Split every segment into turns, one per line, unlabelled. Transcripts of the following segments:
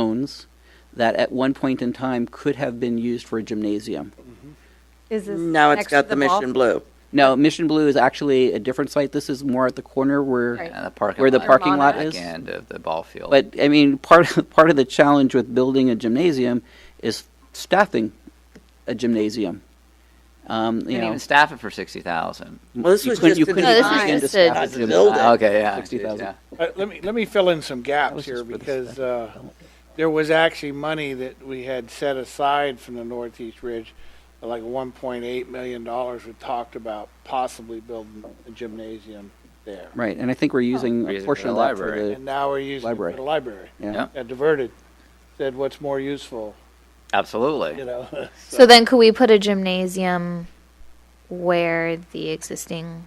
owns that at one point in time could have been used for a gymnasium.
Is this
Now it's
next
got
to
the
ball-
mission blue.
No, Mission Blue is actually a different site. This is more at the corner where,
Right.
And the parking
where the
lot
parking lot
back
is.
End of the ball field.
But I mean, part of, part of the challenge with building a gymnasium is staffing a gymnasium. Um, you
You
know,
can even staff it for sixty thousand. Ah,
Well, this
you
was
couldn't-
just
you
to
couldn't
design.
begin
No,
to
this is
staff a
to
gym-
build it.
Okay, yeah.
60,000.
yeah.
Uh, Let me, let me fill in some gaps
was
here
just for the
because uh, there was actually money that we had set aside from the Northeast Ridge, like one point eight million dollars we talked about possibly building a gymnasium there.
Right, and I think we're using
We're
a
using
portion
the
of that for
library.
the,
And now we're using it for
Library.
the library.
yeah.
Yeah.
Got diverted, said what's more useful, you
Absolutely.
know?
So then could we put a gymnasium where the existing,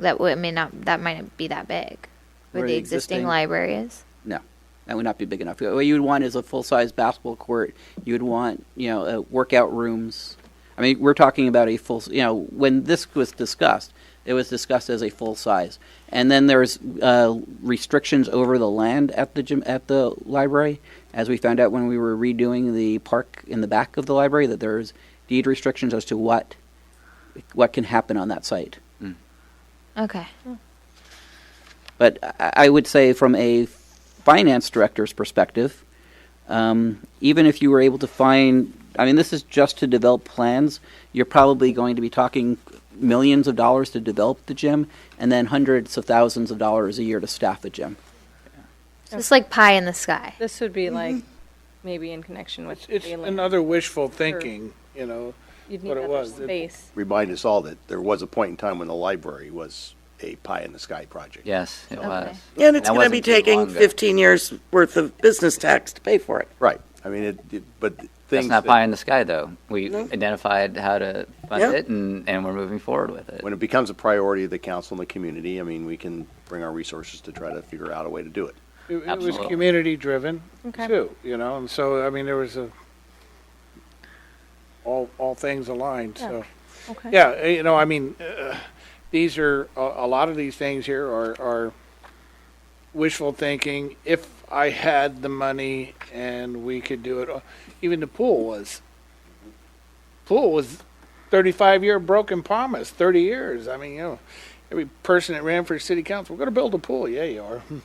that would, I mean, not, that might not be that big, where the existing library is?
No, that would not be big enough. What you would want is a full-size basketball court. You would want, you know, uh, workout rooms. I mean, we're talking about a full, you know, when this was discussed, it was discussed as a full size. And then there's uh, restrictions over the land at the gym, at the library, as we found out when we were redoing the park in the back of the library, that there's deed restrictions as to what what can happen on that site.
Okay.
But I I would say, from a finance director's perspective, um, even if you were able to find, I mean, this is just to develop plans. You're probably going to be talking millions of dollars to develop the gym, and then hundreds of thousands of dollars a year to staff the gym.
So it's like pie in the sky.
This would be like, maybe in connection with.
It's, Mm-hmm. it's
the land.
another wishful thinking, you know?
You'd
what
need
it
other
was. It-
space.
remind us all that there was a point in time when the library was a pie-in-the-sky project.
Yes, it was.
And it's
That
going to be
wasn't too long
taking
ago.
15 years worth of business tax to pay for it.
Right, I mean, it, it- but
That's
things
not pie
that,
in the sky, though. We identified how to
Yeah.
fund it, and, and we're moving forward with it.
when it becomes a priority of the council and the community, I mean, we can bring our resources to try to figure out a way to do it.
It, it was
Absolutely.
community driven
Okay.
too, you know, and so, I mean, there was a, all, all things aligned,
Yeah.
so.
Okay.
Yeah, uh, you know, I mean, uh, these are, a, a lot of these things here are, are wishful thinking. If I had the money and we could do it, uh, even the pool was, pool was 35 year broken promise, 30 years. I mean, you know, every person that ran for city council, we're going to build a pool. Yeah, you are.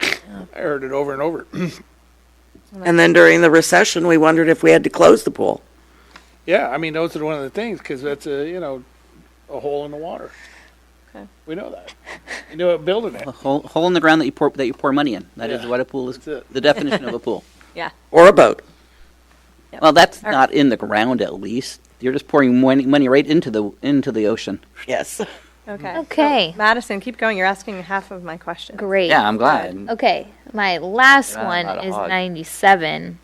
I heard it over and over.
And then during the recession, we wondered if we had to close the pool.
yeah, I mean, those are one of the things because that's a, you know, a hole in the water.
Okay.
We know that. You know, building it.
A hole, hole in the ground that you pour that you pour money in. That is
Yeah.
what a pool is.
That's it.
The definition of a pool.
Yeah.
Or a boat.
Well, that's
All right.
not in the ground. At least you're just pouring money, money right into the into the ocean.
Yes.
Okay.
Mm-hmm. Okay.
So, Madison, keep going. You're asking half of my question.
Great.
Yeah, I'm glad.
Okay, my last
Yeah,
one
Mm. not
is
odd.
97.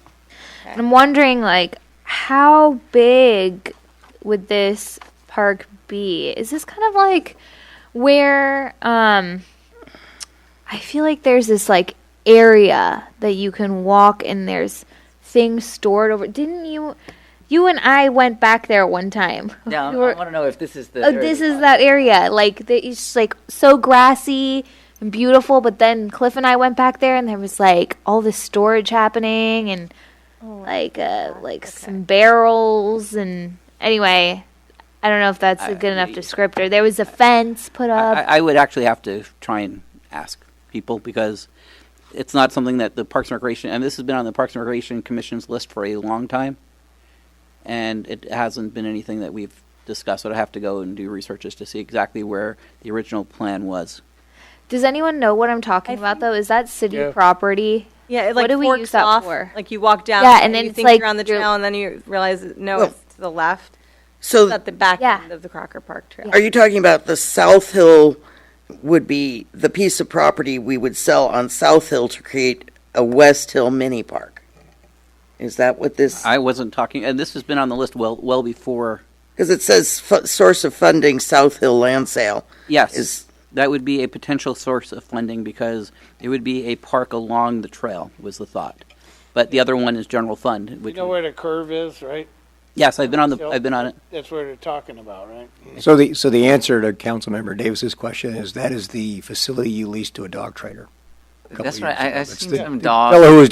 And I'm wondering, like, how big would this park be? Is this kind of like where um, I feel like there's this like area that you can walk and there's things stored over? Didn't you? You and I went back there one time.
Yeah, I
We were-
want to know if this is the.
Oh, this is that area. Like the, it's just like so grassy and beautiful. But then Cliff and I went back there, and there was like all this storage happening, and like uh, like some barrels, and anyway, I don't know if that's a good enough descriptor. There was a fence put up.
I, I would actually have to try and ask people because it's not something that the Parks and Recreation, and this has been on the Parks and Recreation Commission's list for a long time, and it hasn't been anything that we've discussed. So I'd have to go and do researches to see exactly where the original plan was.
Does anyone know what I'm talking about? Though, is that city
Yeah.
property?
Yeah, it
What
like
do we
forks
use that
off.
for?
Like you walk down.
Yeah, and then
you
it's
think
like
you're on the
you're-
trail, and then you realize no,
Well-
it's to the left. It's
So
at the back
Yeah.
end of the Crocker Park Trail.
are you talking about the South Hill would be the piece of property we would sell on South Hill to create a West Hill mini park? Is that what this,
I wasn't talking, and this has been on the list well well before.
because it says fu- source of funding, South Hill land sale
Yes,
is,
that would be a potential source of funding because it would be a park along the trail was the thought. But the other one is general fund.
You
Which
know where the curve is, right?
yes, I've been on the
Hill?
I've been on it.
That's where they're talking about, right?
So the, so the answer to Councilmember Davis's question is that is the facility you leased to a dog trainer. a couple
That's right.
years
I,
ago.
I
That's
seen
the-
some
the
dog.
Fellow who was